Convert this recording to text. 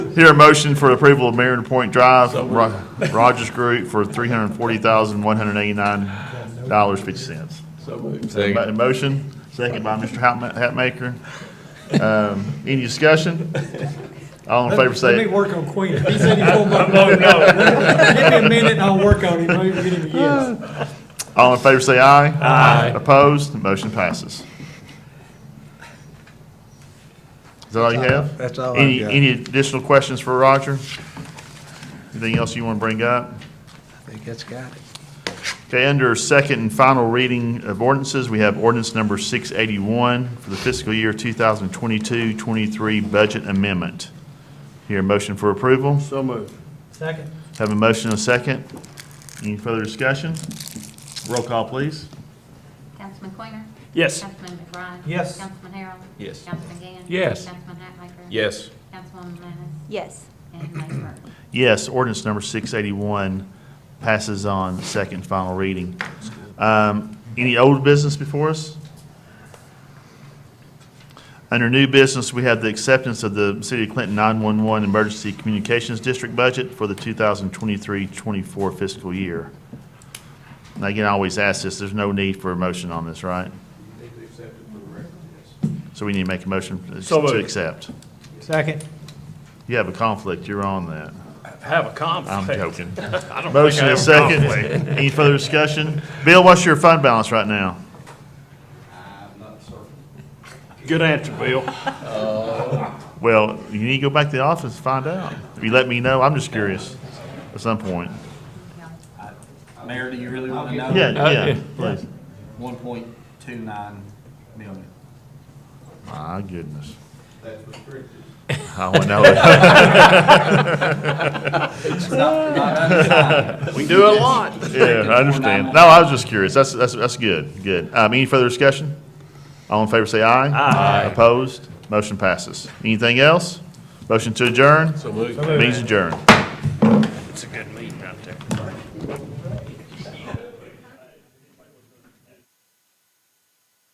Hear a motion for approval of Marion Point Drive, Ro- Rogers Group for three hundred and forty thousand, one hundred and eighty-nine dollars, fifty cents. So moved. By the motion, second by Mr. Hatma- Hatmaker. Um, Any discussion? All in favor Let me say, work on Queen. He said he pulled my. No, Give me a minute and I'll work on him. Maybe get him a yes. all in favor say aye. Aye. Opposed, the motion passes. Is that all you have? That's all I've Any, got. any additional questions for Roger? Anything else you want to bring up? I think that's got it. Okay, under second and final reading of ordinances, we have ordinance number 681 for the fiscal year 2022-23 budget amendment. Here, a motion for approval. So moved. Second. Have a motion and a second. Any further discussion? Roll call, please. Councilman Quainer? Yes. Councilman McBride? Yes. Councilman Harrell? Yes. Councilman Gann? Yes. Councilman Hatmaker? Yes. Councilwoman Manis? yes, And Mayor Burton? Yes, ordinance number 681 passes on second and final reading. Um, Any old business before us? Under new business, we have the acceptance of the City of Clinton 911 Emergency Communications District budget for the 2023-24 fiscal year. And again, I always ask this, there's no need for a motion on this, right? So we need to make a motion So to moved. accept. Second. You have a conflict, you're on that. Have a conflict. I'm joking. I don't think I Motion have is a second. conflict. Any further discussion? Bill, what's your fund balance right now? Good answer, Bill. Well, you need to go back to the office and find out. If you let me know, I'm just curious at some point. Mayor, do you really want to know? Yeah, yeah, please. One point two nine million. My goodness. That's restricted. I We do a lot. know. Yeah, I understand. No, I was just curious. That's, that's, that's good, good. Um, any further discussion? All in favor, say aye. Aye. Opposed? Motion passes. Anything else? Motion to adjourn? So moved. Means adjourned. It's a good meeting out there.